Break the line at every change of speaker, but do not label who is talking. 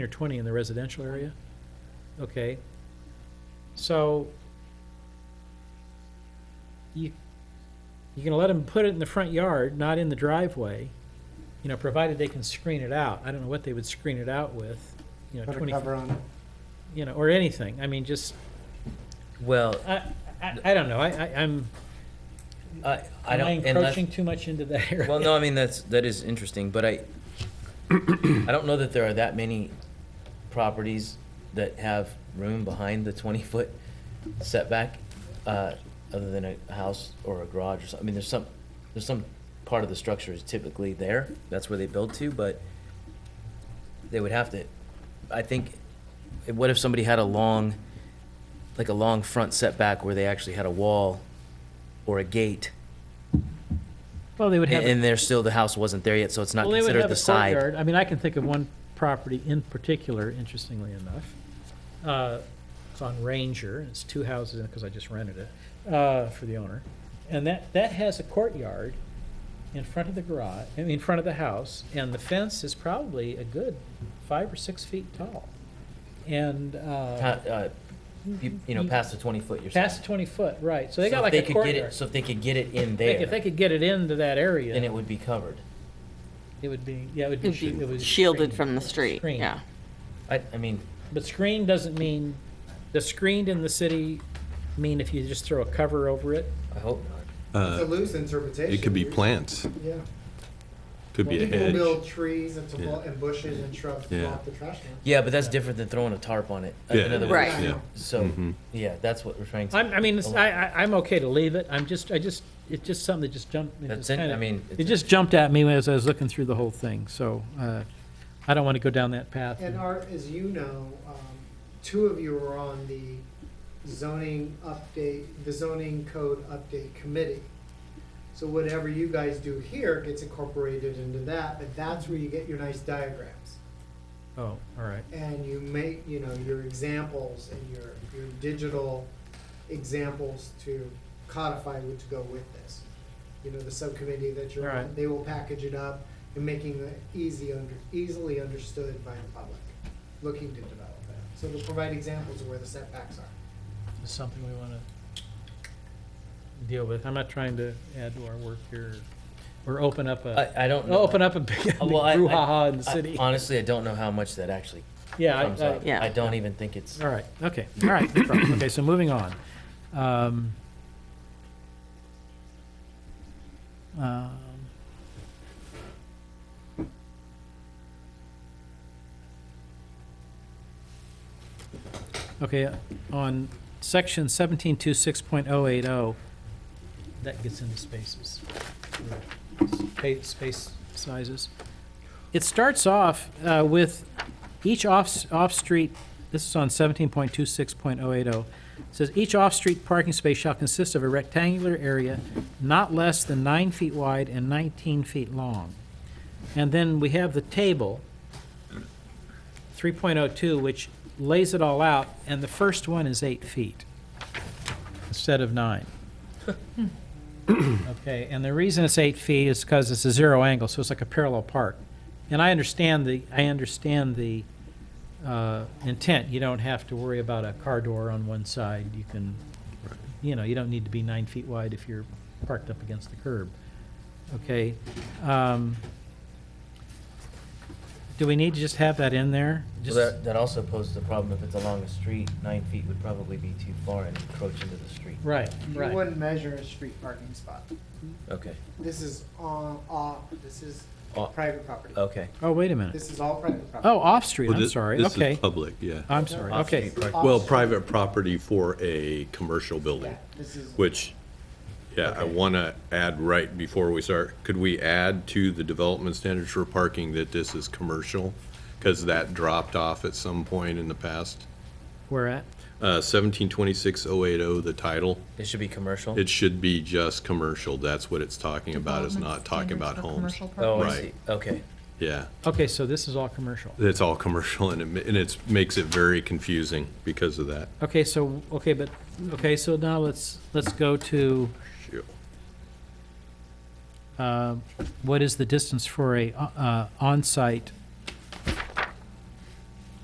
or 20 in the residential area? Okay. So you, you're going to let them put it in the front yard, not in the driveway, you know, provided they can screen it out. I don't know what they would screen it out with, you know,
Put a
20,
cover on it.
you know, or anything. I mean, just,
Well,
I, I I don't know. I, I- I'm,
I, I
am I
don't, unless,
encroaching too much into that area?
well, no, I mean, that's, that is interesting, but I, I don't know that there are that many properties that have room behind the twenty-foot setback, uh, other than a house or a garage or something. I mean, there's some, there's some part of the structure is typically there, that's where they build to, but they would have to, I think, what if somebody had a long, like a long front setback where they actually had a wall or a gate?
Well, they would have.
And, and there's still, the house wasn't there yet, so it's not
Well, they would
considered
have
the
a
side.
courtyard. I mean, I can think of one property in particular, interestingly enough. Uh, It's on Ranger, and it's two houses in it, because I just rented it, uh, for the owner. And that, that has a courtyard in front of the garage, I mean, in front of the house, and the fence is probably a good five or six feet tall. And,
Uh,
uh,
uh, You, you know, past the twenty foot, you're saying.
past twenty foot, right, so they
So
got
if
like
they
a
could get it-
courtyard.
So if they could get it in
Like, If they
there,
could get it into that area,
then it would be covered.
it would be, yeah, it would be. shi-
It'd
it
be
would be
shielded
screened.
from the street,
Screened.
yeah.
I, I mean,
But screened doesn't mean, does screened in the city mean if you just throw a cover over it?
I hope not.
It's a loose interpretation.
Uh, It could be
You're-
plants,
Yeah.
could be a
People
hedge.
build trees and to-
Yeah.
and bushes and shrubs to
Yeah.
block the trash can.
Yeah, but that's different than throwing a tarp on it. Uh,
Yeah,
in other
yeah,
words,
Right.
yeah. Mm-hmm.
So, yeah, that's what we're trying to.
I'm, I mean, it's, I, I, I'm okay to leave it, I'm just, I just, it's just something that just jumped. it
That's
just
it, I
kinda-
mean,
It
it's-
just jumped at me as I was looking through the whole thing, so, uh, I don't want to go down that path.
And Art, as you know, um, two of you were on the zoning update, the zoning code update committee. So whatever you guys do here gets incorporated into that, but that's where you get your nice diagrams.
Oh, all right,
and you make, you know, your examples and your, your digital examples to codify what to go with this. You know, the subcommittee that you're on,
Right.
they will package it up and making it easy under, easily understood by the public, looking to develop that. So they'll provide examples of where the setbacks are.
It's something we want to deal with, I'm not trying to add to our work here, or open up a,
I, I don't know.
open up a big big
Uh, well, I- I-
brouhaha in the
I-
city.
Honestly, I don't know how much that actually
Yeah, I-
comes
I-
up.
Yeah.
I don't even think it's,
All right, okay, all right, no problem. okay, so moving on. Um, um, Okay, on section seventeen two six point oh eight oh, that gets into spaces, space, space sizes. It starts off uh, with each off, off-street, this is on seventeen point two six point oh eight oh, says each off-street parking space shall consist of a rectangular area not less than nine feet wide and nineteen feet long. And then we have the table, three point oh two, which lays it all out, and the first one is eight feet instead of nine. Okay, and the reason it's eight feet is because it's a zero angle, so it's like a parallel park. And I understand the, I understand the uh, intent, you don't have to worry about a car door on one side, you can, you know, you don't need to be nine feet wide if you're parked up against the curb, okay? um, Do we need to just have that in there?
well,
Just
that, that also poses a problem if it's along a street, nine feet would probably be too far and encroach into the street.
Right,
You
right,
wouldn't measure a street parking spot.
Okay,
This is on, off, this is
Off.
private property.
okay.
oh, wait a minute,
This is all private property.
oh, off-street,
Well,
I'm
thi-
sorry,
This
okay,
is public, yeah.
I'm sorry, okay,
Off-street
Off-
Well, private property for a commercial building,
Yeah, This is.
which, yeah, I want to add right before we start, could we add to the development standards for parking that this is commercial? Because that dropped off at some point in the past.
we're at,
Uh, seventeen twenty-six oh eight oh, the title,
It should be commercial?
it should be just commercial, that's what it's talking about, it's not
Development
talking
standards
about
for
homes.
commercial park-
Oh, I
Right.
see, okay.
Yeah.
okay, so this is all commercial.
It's all commercial and it, ma- and it's, makes it very confusing because of that.
Okay, so, okay, but, okay, so now let's, let's go to, uh, what is the distance for a uh, on-site